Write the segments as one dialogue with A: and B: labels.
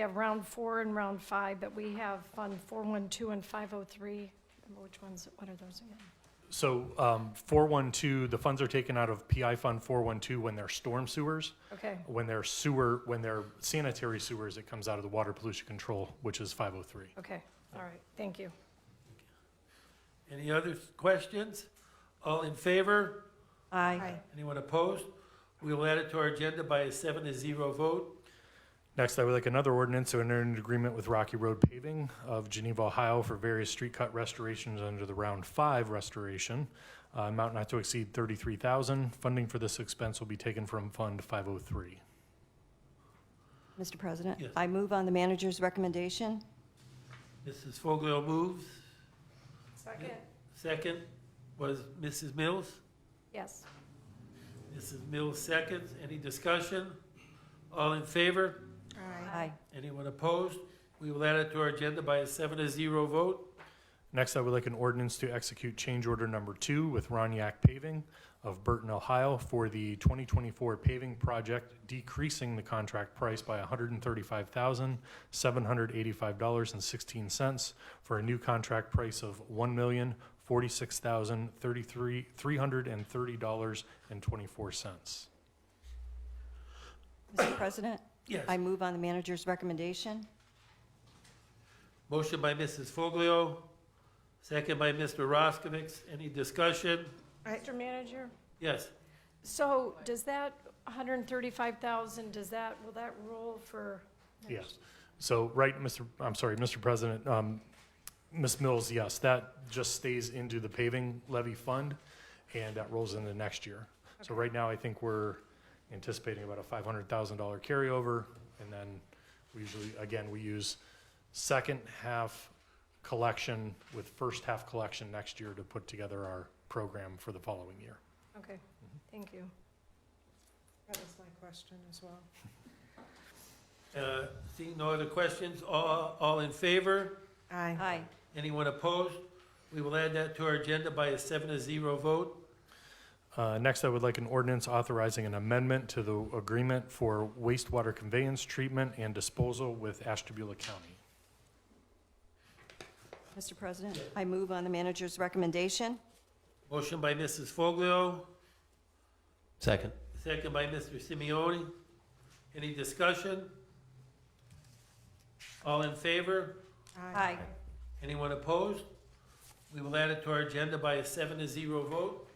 A: We have round four and round five, but we have Fund 412 and 503. Remember which ones, what are those again?
B: So um, 412, the funds are taken out of PI Fund 412 when they're storm sewers.
A: Okay,
B: When they're sewer, when they're sanitary sewers, it comes out of the water pollution control, which is 503.
A: okay, all right, thank you.
C: Any other questions? All in favor?
D: Aye.
C: Anyone opposed? We will add it to our agenda by a seven to zero vote.
B: Next, I would like another ordinance to enter an agreement with Rocky Road Paving of Geneva, Ohio for various street cut restorations under the Round Five restoration. uh, Amount not to exceed 33,000. Funding for this expense will be taken from Fund 503.
D: Mr. President?
C: Yes.
D: I move on the manager's recommendation.
C: Mrs. Foglio moves.
A: Second.
C: Second was Mrs. Mills.
A: Yes.
C: Mrs. Mills seconds. Any discussion? All in favor?
D: Aye.
C: Anyone opposed? We will add it to our agenda by a seven to zero vote.
B: Next, I would like an ordinance to execute change order number two with Roniak Paving of Burton, Ohio for the 2024 paving project, decreasing the contract price by $135,785.16 for a new contract price of $1,046,330.24.
D: Mr. President?
C: Yes.
D: I move on the manager's recommendation.
C: Motion by Mrs. Foglio, second by Mr. Roskovich. Any discussion?
A: Mr. Manager,
C: Yes.
A: so does that 135,000, does that, will that roll for?
B: Yes. So, right, Mr., I'm sorry, Mr. President, um, Ms. Mills, yes, that just stays into the paving levy fund, and that rolls into next year. So right now, I think we're anticipating about a five hundred thousand dollar carryover, and then we usually, again, we use second half collection with first half collection next year to put together our program for the following year.
A: Okay, thank you.
E: That was my question as well.
C: Uh, Seeing no other questions, all, all in favor?
E: Aye.
D: Aye.
C: Anyone opposed? We will add that to our agenda by a seven to zero vote.
B: Uh, Next, I would like an ordinance authorizing an amendment to the agreement for wastewater conveyance, treatment, and disposal with Ashtabula County.
D: Mr. President? I move on the manager's recommendation.
C: Motion by Mrs. Foglio,
F: Second.
C: second by Mr. Simeoni. Any discussion? All in favor?
D: Aye.
C: Anyone opposed? We will add it to our agenda by a seven to zero vote.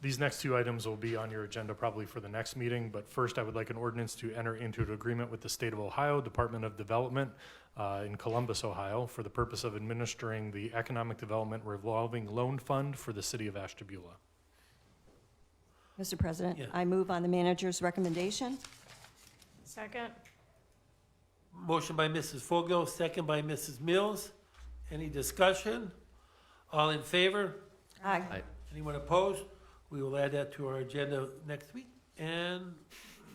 B: These next two items will be on your agenda probably for the next meeting, but first, I would like an ordinance to enter into an agreement with the State of Ohio Department of Development uh, in Columbus, Ohio, for the purpose of administering the Economic Development Revolving Loan Fund for the city of Ashtabula.
D: Mr. President?
C: Yeah.
D: I move on the manager's recommendation.
A: Second?
C: Motion by Mrs. Foglio, second by Mrs. Mills. Any discussion? All in favor?
D: Aye.
C: Anyone opposed? We will add that to our agenda next week. And,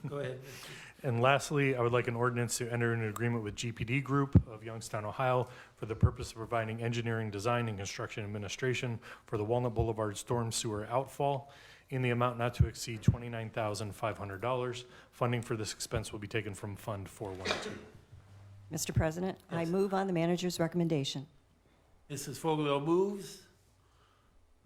C: go ahead. Mr.
B: And lastly, I would like an ordinance to enter an agreement with GPD Group of Youngstown, Ohio, for the purpose of providing engineering, design, and construction administration for the Walnut Boulevard storm sewer outfall in the amount not to exceed $29,500. Funding for this expense will be taken from Fund 412.
D: Mr. President? I
C: Yes.
D: move on the manager's recommendation.
C: Mrs. Foglio moves.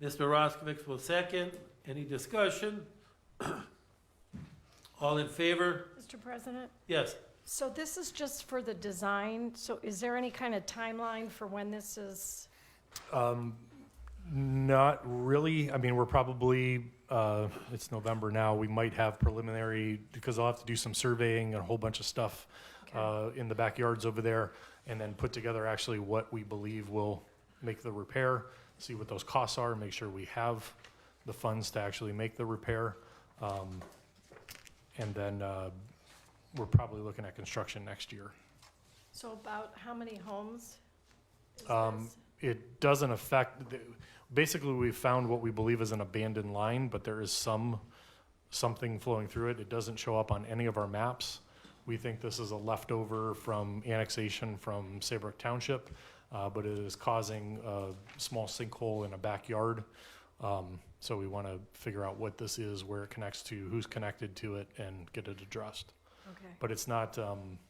C: Mr. Roskovich will second. Any discussion? All in favor?
A: Mr. President,
C: Yes.
A: so this is just for the design, so is there any kind of timeline for when this is?
B: Um, Not really. I mean, we're probably, uh, it's November now. We might have preliminary, because I'll have to do some surveying and a whole bunch of stuff uh, in the backyards over there, and then put together actually what we believe will make the repair, see what those costs are, make sure we have the funds to actually make the repair. Um, And then uh, we're probably looking at construction next year.
A: So about how many homes? is
B: Um,
A: this?
B: it doesn't affect, the- basically, we found what we believe is an abandoned line, but there is some, something flowing through it. It doesn't show up on any of our maps. We think this is a leftover from annexation from Saybrook Township, uh, but it is causing a small sinkhole in a backyard. Um, so we want to figure out what this is, where it connects to, who's connected to it, and get it addressed.
A: Okay,
B: But it's not, um,